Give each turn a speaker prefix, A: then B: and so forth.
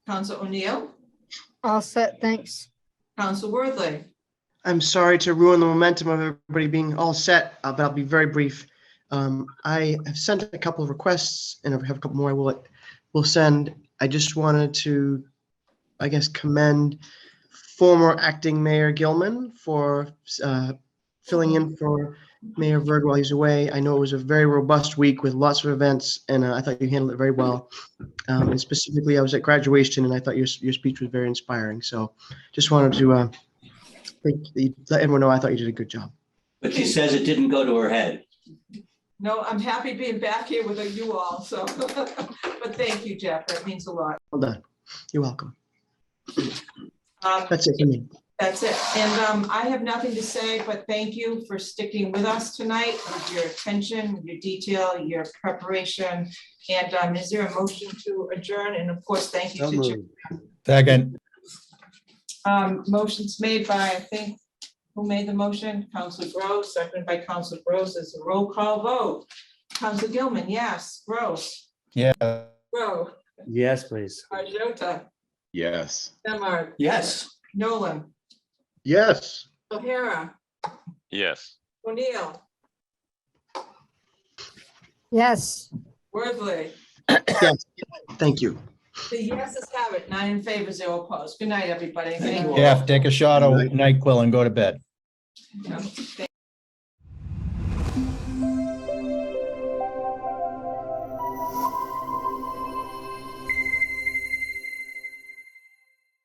A: Counsel O'Neill,
B: All set, thanks.
A: Counsel Worthley,
C: I'm sorry to ruin the momentum of everybody being all set, uh, but I'll be very brief. Um, I have sent a couple of requests and I have a couple more I will, will send. I just wanted to, I guess, commend former acting Mayor Gilman for uh, filling in for Mayor Verg while he's away. I know it was a very robust week with lots of events and uh, I thought you handled it very well. Um, And specifically, I was at graduation and I thought your, your speech was very inspiring. So just wanted to uh, Thank you. Let everyone know I thought you did a good job.
D: But she says it didn't go to her head.
A: No, I'm happy being back here with you all, so, but thank you, Jeff, that means a lot.
C: Well done. You're welcome.
A: Um,
C: That's it for me.
A: That's it, and um, I have nothing to say, but thank you for sticking with us tonight, with your attention, with your detail, your preparation. And um, is there a motion to adjourn, and of course, thank you to Jeff.
E: Second,
A: Um, motions made by, I think, who made the motion? Council Gross, seconded by Council Gross, it's a roll call vote. Council Gilman, yes, Gross,
E: yeah.
A: Grow,
F: Yes, please.
A: Arjota,
G: Yes.
A: Memard,
D: Yes.
A: Nolan,
C: Yes.
A: O'Hara,
G: Yes.
A: O'Neill,
B: Yes.
A: Worthley.
C: Yes. Thank you.
A: The yeses have it, nine in favor, zero opposed. Good night, everybody.
D: Thank you
A: Thank you.
D: all.
E: Jeff, take a shot of NyQuil and go to bed.
A: Yeah.